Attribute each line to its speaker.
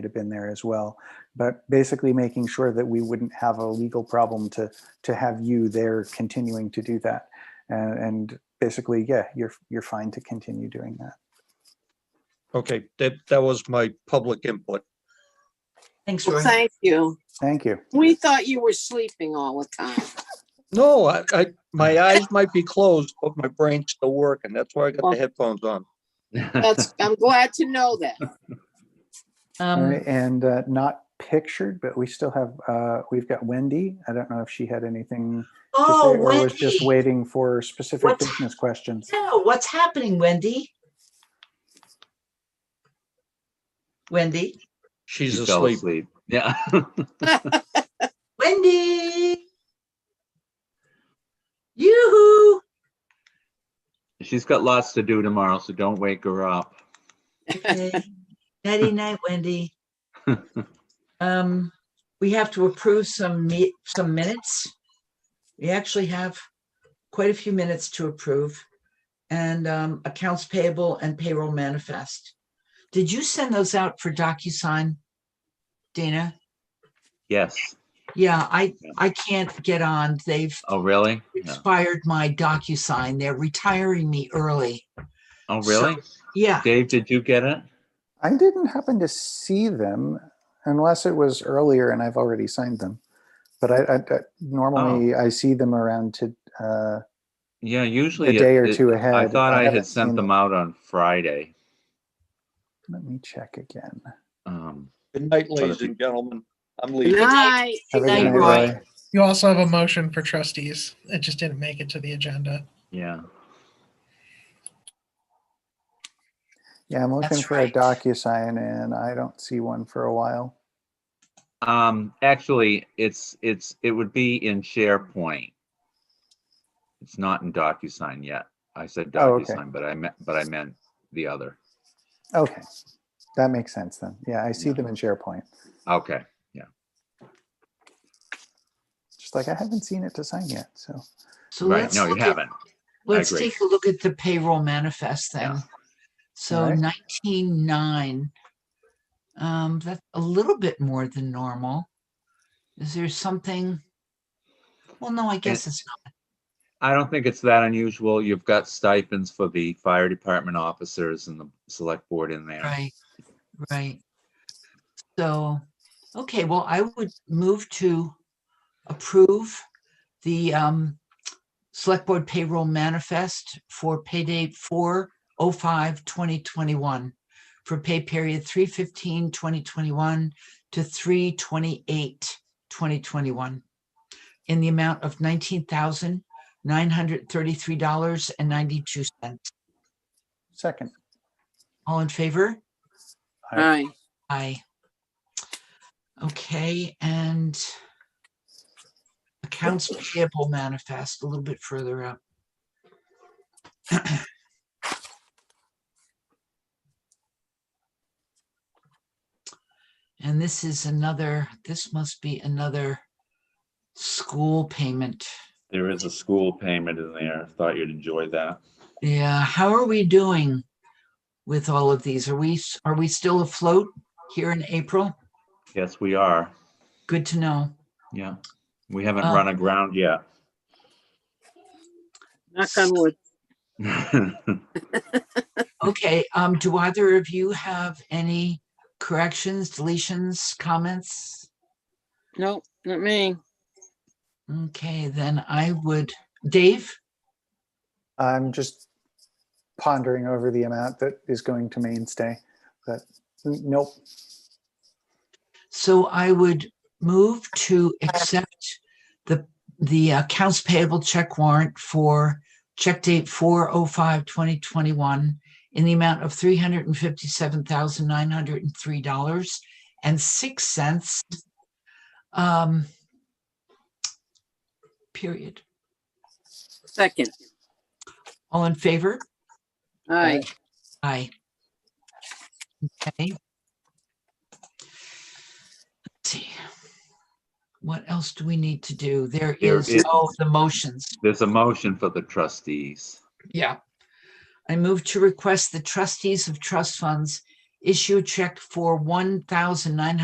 Speaker 1: should have been there as well. But basically making sure that we wouldn't have a legal problem to, to have you there continuing to do that. And, and basically, yeah, you're, you're fine to continue doing that.
Speaker 2: Okay, that, that was my public input.
Speaker 3: Thanks, Roy.
Speaker 4: Thank you.
Speaker 1: Thank you.
Speaker 4: We thought you were sleeping all the time.
Speaker 2: No, I, I, my eyes might be closed, but my brain's still working. That's why I got the headphones on.
Speaker 4: That's, I'm glad to know that.
Speaker 1: All
Speaker 3: Um,
Speaker 1: right, And uh, not pictured, but we still have, uh, we've got Wendy. I don't know if she had anything to say
Speaker 3: Oh,
Speaker 1: or was just
Speaker 3: Wendy.
Speaker 1: waiting for specific
Speaker 3: What's-
Speaker 1: business questions.
Speaker 3: No, what's happening, Wendy? Wendy?
Speaker 2: She's
Speaker 5: She fell
Speaker 2: asleep.
Speaker 5: asleep. Yeah.
Speaker 3: Wendy? Yoo-hoo!
Speaker 5: She's got lots to do tomorrow, so don't wake her up.
Speaker 3: Okay. Nighty night, Wendy. Um, we have to approve some meet, some minutes. We actually have quite a few minutes to approve. And um, accounts payable and payroll manifest. Did you send those out for DocuSign? Dana?
Speaker 5: Yes.
Speaker 3: Yeah, I, I can't get on. They've
Speaker 5: Oh, really? Yeah.
Speaker 3: expired my DocuSign. They're retiring me early.
Speaker 5: Oh, really?
Speaker 3: Yeah,
Speaker 5: Dave, did you get it?
Speaker 1: I didn't happen to see them unless it was earlier and I've already signed them. But I, I, I normally I see them around to uh,
Speaker 5: Yeah, usually.
Speaker 1: a
Speaker 5: it-
Speaker 1: day or
Speaker 5: it-
Speaker 1: two
Speaker 5: I
Speaker 1: ahead.
Speaker 5: thought I
Speaker 1: haven't
Speaker 5: had sent
Speaker 1: seen
Speaker 5: them out on Friday.
Speaker 1: Let me check again.
Speaker 5: Um,
Speaker 2: Good night, ladies and gentlemen. I'm leaving.
Speaker 4: Night.
Speaker 1: Have a
Speaker 3: night,
Speaker 1: good
Speaker 3: Roy.
Speaker 1: Roy.
Speaker 6: You also have a motion for trustees. It just didn't make it to the agenda.
Speaker 5: Yeah,
Speaker 1: Yeah, I'm looking
Speaker 3: That's
Speaker 1: for a
Speaker 3: right.
Speaker 1: DocuSign and I don't see one for a while.
Speaker 5: um, actually, it's, it's, it would be in SharePoint. It's not in DocuSign yet. I said
Speaker 1: Oh, okay.
Speaker 5: DocuSign, but I meant, but I meant the other.
Speaker 1: Okay, that makes sense then. Yeah, I see
Speaker 5: Yeah.
Speaker 1: them in SharePoint.
Speaker 5: Okay,
Speaker 1: Just like I haven't seen it to sign yet. So
Speaker 3: so
Speaker 5: right,
Speaker 3: let's,
Speaker 5: no, you
Speaker 3: look at-
Speaker 5: haven't.
Speaker 3: let's
Speaker 5: agree.
Speaker 3: take a look at the payroll manifest then.
Speaker 5: Yeah.
Speaker 3: So
Speaker 1: Alright.
Speaker 3: nineteen nine. Um, that's a little bit more than normal. Is there something? Well, no, I guess it's not.
Speaker 5: I don't think it's that unusual. You've got stipends for the fire department officers and the select board in there.
Speaker 3: Right, right. So, okay, well, I would move to approve the um Select Board Payroll Manifest for payday four oh five twenty twenty-one for pay period three fifteen twenty twenty-one to three twenty-eight twenty twenty-one in the amount of nineteen thousand nine hundred thirty-three dollars and ninety-two cents.
Speaker 1: second,
Speaker 3: All in favor?
Speaker 4: Hi.
Speaker 3: Aye. Okay, and accounts payable manifest a little bit further up. And this is another, this must be another school payment.
Speaker 5: There is a school payment in there. Thought you'd enjoy that.
Speaker 3: Yeah, how are we doing with all of these? Are we, s- are we still afloat here in April?
Speaker 5: Yes, we are.
Speaker 3: Good to know.
Speaker 5: Yeah. We haven't
Speaker 3: Um,
Speaker 5: run aground yet.
Speaker 4: Knock on wood.
Speaker 3: Okay, um, do either of you have any corrections, deletions, comments?
Speaker 4: Nope, not me.
Speaker 3: Okay, then I would, Dave,
Speaker 1: I'm just pondering over the amount that is going to mainstay. But n- nope,
Speaker 3: so I would move to accept the, the uh, accounts payable check warrant for check date 405-2021 in the amount of three hundred and fifty-seven thousand nine hundred and three dollars and six cents. Um, period.
Speaker 4: Second.
Speaker 3: All in favor?
Speaker 4: Hi.
Speaker 3: Aye. Okay. Let's see. What else do we need to do? There
Speaker 5: There
Speaker 3: is,
Speaker 5: is-
Speaker 3: oh, the motions.
Speaker 5: There's a motion for the trustees.
Speaker 3: Yeah. I move to request the trustees of trust funds issue check for one thousand nine hundred.